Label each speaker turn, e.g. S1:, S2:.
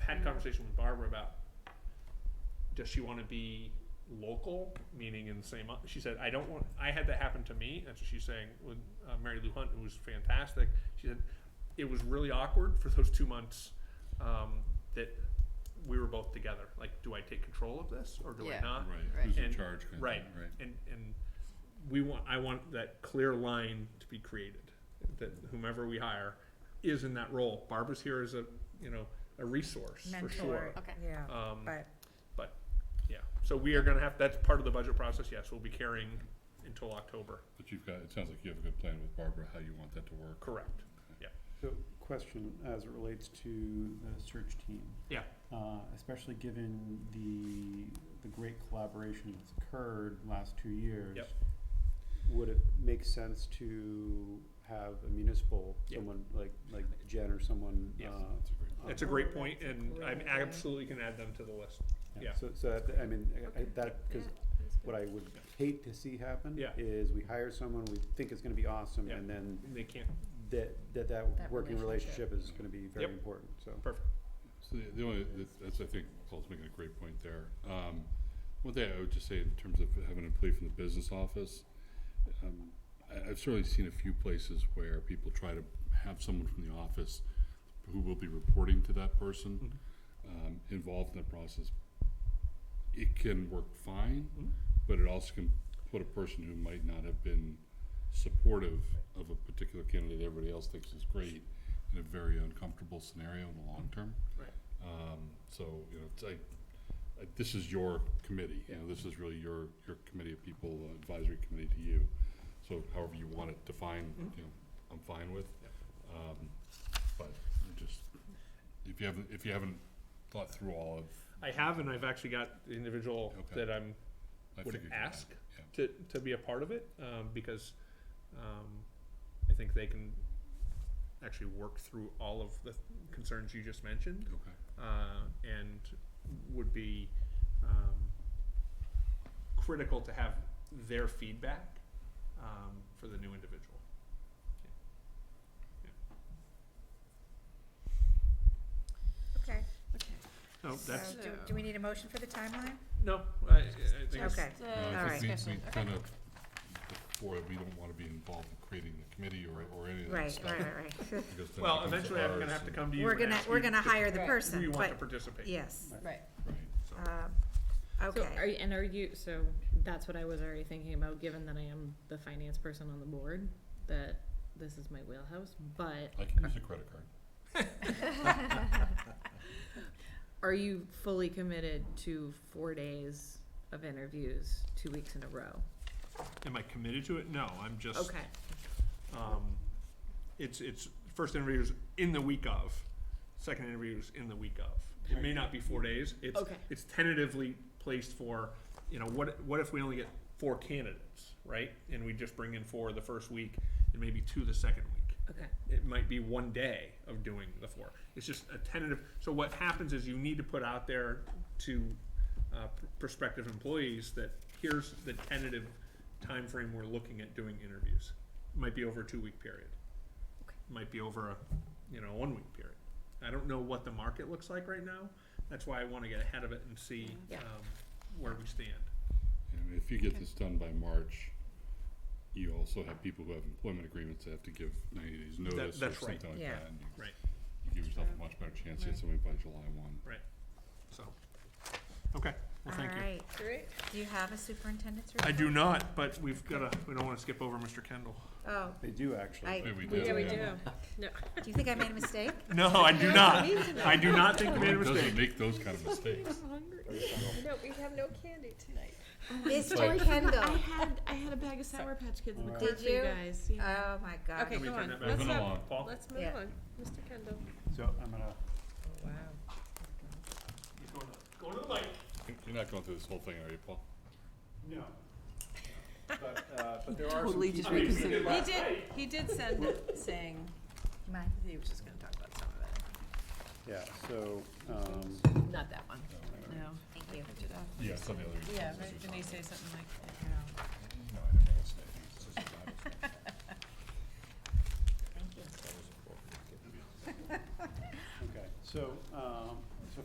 S1: conversation with Barbara about does she want to be local, meaning in the same. o- She said, "I don't want." I had that happen to me. That's what she's saying with uh, Mary Lou Hunt, who was fantastic. She said it was really awkward for those two months um, that we were both together. Like, do I take control of this or do
S2: Yeah.
S1: I not?
S2: Right.
S3: Right, who's in
S1: And-
S3: charge kind of
S1: right.
S3: thing, right?
S1: And and we want. I want that clear line to be created that whomever we hire is in that role. Barbara's here as a you know a resource for sure.
S4: mentor,
S2: Okay.
S4: yeah,
S1: Um,
S4: but,
S1: but, yeah, so we are gonna have, that's part of the budget process, yes, we'll be carrying until October,
S3: But you've got, it sounds like you have a good plan with Barbara, how you want that to work.
S1: correct.
S5: So, question as it relates to the search team.
S1: Yeah.
S5: Uh, especially given the, the great collaboration that's occurred last two years.
S1: Yep.
S5: Would it make sense to have a municipal,
S1: Yeah.
S5: someone like, like Jen or someone, uh?
S1: Yes.
S3: That's a great-
S1: That's a great point, and I absolutely can add them to the list, yeah.
S5: So, so that, I mean, I- I, that, cause what I would hate to see happen
S1: Yeah.
S5: is we hire someone, we think is gonna be awesome,
S1: Yeah.
S5: and then
S1: they can't,
S5: that, that, that
S4: That
S5: working
S4: relationship.
S5: relationship is gonna be very
S1: Yep.
S5: important, so.
S1: perfect,
S3: So the, the only, that's- that's, I think Paul's making a great point there. Um, one thing I would just say in terms of having a plea from the business office, um, I, I've certainly seen a few places where people try to have someone from the office who will be reporting to that person, um, involved in the process. It can work fine,
S1: Mhm.
S3: but it also can put a person who might not have been supportive of a particular candidate that everybody else thinks is great in a very uncomfortable scenario in the long term.
S1: Right.
S3: Um, so, you know, it's like, uh, this is your committee, you know, this is really your, your committee of people, uh, advisory committee to you. So however you want it defined,
S1: Mhm.
S3: you know, I'm fine with. Um, but I just, if you haven't, if you haven't thought through all of,
S1: I have, and I've actually got the individual
S3: Okay.
S1: that I'm,
S3: I
S1: would
S3: figured. you
S1: ask
S3: might, yeah.
S1: to, to be a part of it, um, because, um, I think they can actually work through all of the concerns you just mentioned,
S3: Okay,
S1: uh, and would be um, critical to have their feedback um, for the new individual.
S4: okay.
S2: Okay.
S1: No,
S4: So,
S1: Oh, that's, uh,
S4: do, do we need a motion for the timeline?
S1: no, I, I think it's,
S4: Okay,
S6: uh,
S3: No, I
S4: Alright.
S3: think Uh, we, we
S2: Discussion, okay.
S3: kind of, before, we don't want to be involved in creating the committee or, or any of that
S4: right,
S3: stuff.
S4: right, right, right.
S3: because then it
S1: well,
S3: becomes
S1: eventually I'm
S3: ours
S1: gonna have to
S3: and-
S1: come to you
S4: We're
S1: and
S4: gonna,
S1: ask
S4: we're
S1: you
S4: gonna
S1: if
S4: hire the
S7: Right.
S1: We
S4: person,
S1: want to
S4: but,
S1: participate.
S4: yes,
S5: Right.
S7: Right.
S3: Right,
S1: So,
S4: um,
S6: So are
S4: okay,
S6: you, and are you, so that's what I was already thinking about, given that I am the finance person on the board, that this is my wheelhouse, but
S3: I can use a credit card.
S6: are you fully committed to four days of interviews, two weeks in a row?
S1: Am I committed to it? No, I'm just,
S6: Okay,
S1: um, it's, it's, first interviews in the week of, second interviews in the week of. It may not be four days, it's,
S6: okay,
S1: it's tentatively placed for, you know, what, what if we only get four candidates, right? And we just bring in four the first week and maybe two the second week.
S6: okay,
S1: It might be one day of doing the four. It's just a tentative, so what happens is you need to put out there to, uh, pr- prospective employees that here's the tentative time frame we're looking at doing interviews. Might be over a two-week period.
S6: Okay.
S1: Might be over a, you know, one-week period. I don't know what the market looks like right now. That's why I wanna get ahead of it and see,
S6: Yeah.
S1: um, where we stand.
S3: And if you get this done by March, you also have people who have employment agreements that have to give ninety days notice or
S1: that's right.
S3: something like
S4: Yeah.
S3: that. and you-
S1: Right.
S3: You give yourself a much better chance to get somebody by July one.
S1: So, okay, well, thank you.
S4: alright,
S7: Great.
S4: do you have a superintendent's report?
S1: I do not, but we've gotta, we don't wanna skip over Mr. Kendall.
S4: Oh,
S5: They do actually.
S4: I,
S3: Maybe we
S4: we
S3: do.
S4: do,
S3: Yeah,
S4: we
S3: we
S4: do.
S3: do.
S4: Do you think I made a mistake?
S1: No, I do not. I do not think you made a
S3: Who Doesn't
S1: mistake.
S3: make those kind of mistakes.
S7: No, we have no candy tonight.
S4: Mr. Kendall,
S6: had, I had a bag of Sour Patch Kids
S5: in the Alright.
S4: cart for you
S6: guys,
S4: oh my god.
S7: Okay,
S1: Can we
S7: go
S1: turn
S7: on.
S1: that back
S7: Let's
S3: Moving
S7: not-
S3: along.
S1: Paul?
S7: Uh, Let's move
S4: Yeah.
S7: on. Mr. Kendall.
S5: So I'm gonna,
S7: Wow.
S1: He's going to- Going to the mic.
S3: You're not going through this whole thing, are you, Paul?
S5: no. But, uh, but there are some.
S1: I mean, we did
S7: He
S1: last
S7: did,
S1: night.
S7: he did send it saying
S4: Mine.
S7: he was just gonna talk about some of it.
S5: Yeah, so, um,
S7: Not that one. No.
S4: Thank you.
S7: I did a-
S3: Yeah, some of the other.
S7: Yeah,
S3: reasons
S7: right,
S3: is-
S7: didn't he say something like, you know?
S3: No, I don't know what's there. It's just a lot of stuff.
S5: okay, so, um,